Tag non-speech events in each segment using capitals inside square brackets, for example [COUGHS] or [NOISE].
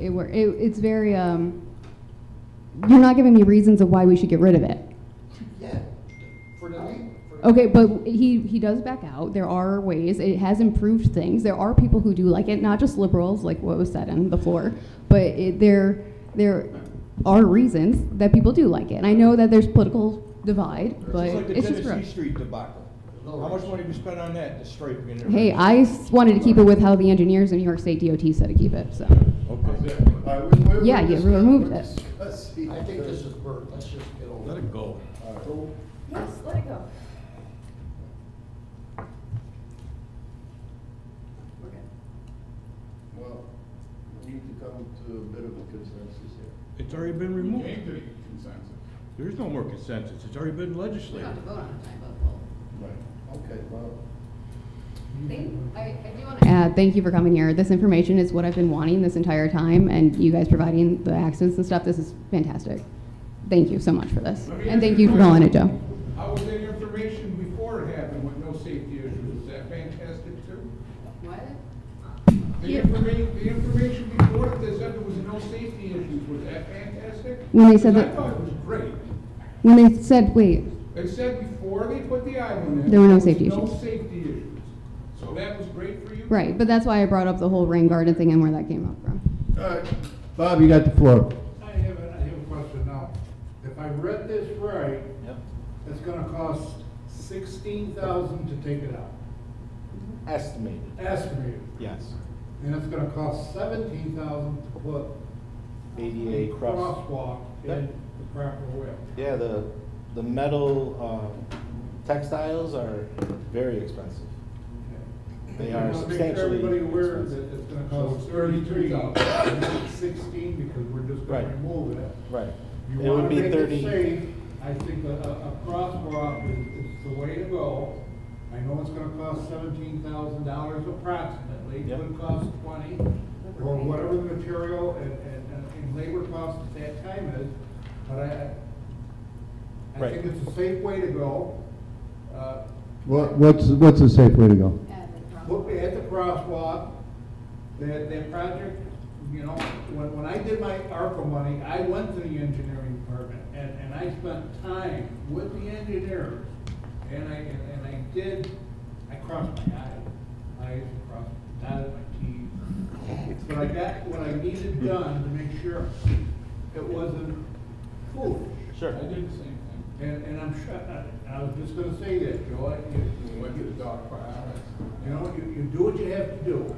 It, wor- it, it's very, um, you're not giving me reasons of why we should get rid of it. Yeah, for tonight. for- Okay, but he, he does back out. There are ways. It has improved things. There are people who do like it, not just liberals, like what was said on the floor, but it, there, there are reasons that people do like it. And I know that there's political divide, but It's like the it's just Tennessee gross. Street debacle. How much money we spent on that, the striping and everything? Hey, I s- wanted to keep it with how the engineers in New York State DOT said to keep it, so. Okay. All right, we- we- we're Yeah, you just- removed it. Let's see. I think this is Bert, let's just get over it. Let it go. All right. Yes, let it go. We're good. Well, we need to come to a bit of a consensus here. It's already been removed. Came to consensus. There is no more consensus. It's already been We don't have to legislated. vote on it, I vote well. Right. Okay, well, I do want to add, Uh, thank you for coming here. This information is what I've been wanting this entire time, and you guys providing the accents and stuff, this is fantastic. Thank you so much for this. And thank you for calling it, Joe. How was that information before it happened with no safety issues? Is that fantastic too? What? The information, the information before it, they said there was no safety issues. Was that fantastic? When they said that- I thought it was great. When they said, wait, They said before they put the eye on it. There were no was safety No issues. safety issues. So that was great for you? right, but that's why I brought up the whole rain garden thing and where that came up from. all right. Bob, you got the floor. I have, a- I have a question now. If I read this right, it's gonna cost sixteen thousand to take it out, Estimated, estimated. yes. And it's gonna cost seventeen thousand to put a ADA E cross. crosswalk in Yep. the proper way. Yeah, the, the metal uh, textiles are very expensive. I They are wanna make substantially Everybody aware expensive. that it's gonna So cost it's thirty-three, 33,000. [COUGHS] not sixteen, because we're just gonna Right. remove it. Right. You It would wanna be make it 30 safe, I think a, a, a crosswalk is, is the way to go. I know it's gonna cost seventeen thousand dollars approximately, it Yep. would cost twenty, or whatever the material and, and, and- and labor cost at that time is, but I, I Right. think it's a safe way to go. Uh, What, what's, what's a safe way to go? Put me at the crosswalk, that, that project, you know, when, when I did my ARPA money, I went to the engineering department, and, and I spent time with the engineers, and I, and and I did, I crossed my i, I crossed, dotted my t's. But I got what I needed done to make sure it wasn't foolish. Sure. I did the same thing. And, and I'm sure, I, I was just gonna say that, Joe, I- you, We went to the dog park. you know, you, you do what you have to do.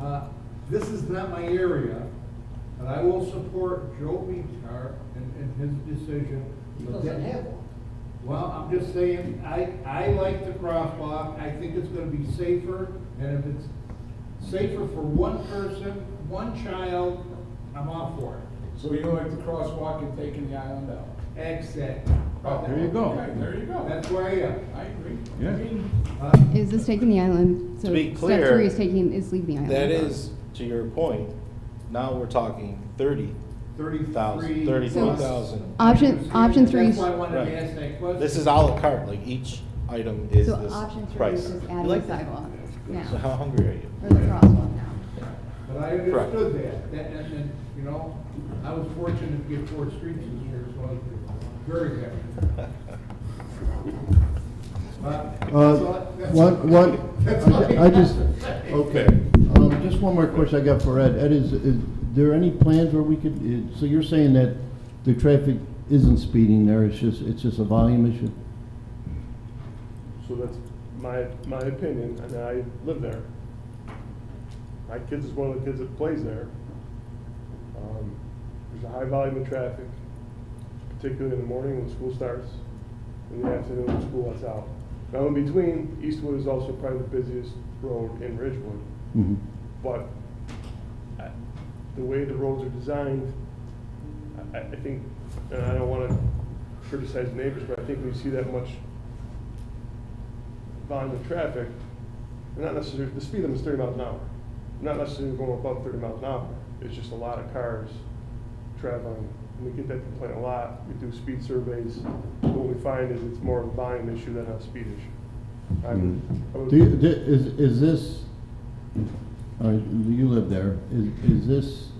Uh, This is not my area, but I will support Joe Vitar in, in his decision. He doesn't have one. Well, I'm just saying, I, I like the crosswalk, I think it's gonna be safer, and if it's safer for one person, one child, I'm all for it. So you like the crosswalk and taking the island out? Exactly. Oh, There you go. okay, There you go. That's where I am. I agree. Yeah. I mean, Uh, Is this taking the island? To be Step clear, three is taking, is leave the island. That is, to your point, now we're talking thirty thousand, Thirty-three. thirty-four So- thousand. Option, option three. That's why I wanted Right. to ask that question. This is à la carte, like each item is So this option three price. is just You adding like the that? sidewalk So how now, hungry are you? or the crosswalk now. But I Correct. understood that, that, and, and, you know, I was fortunate to get four streets this year, so I was very happy. But- Uh, that's- One, one, [LAUGHS] that's all I I just, have to say. okay, um, just one more question I got for Ed. Ed, is, is there any plans where we could, i- so you're saying that the traffic isn't speeding there, it's just, it's just a volume issue? So that's my, my opinion, and I live there. My kids is one of the kids that plays there. Um, There's a high volume of traffic, particularly in the morning when school starts, in the afternoon when school lets out. Now, in between, Eastwood is also probably the busiest road in Ridgewood, Mhm. but I- the way the roads are designed, I, I think, and I don't wanna criticize neighbors, but I think we see that much volume of traffic, they're not necessarily, the speed limit is thirty miles an hour. They're Not necessarily going above thirty miles an hour, it's just a lot of cars traveling. And we get that complaint a lot, we do speed surveys, what we find is it's more of a volume issue than a speed issue. I would- I would- Do uh, you, di- is, is this, all right, you live there, is, is this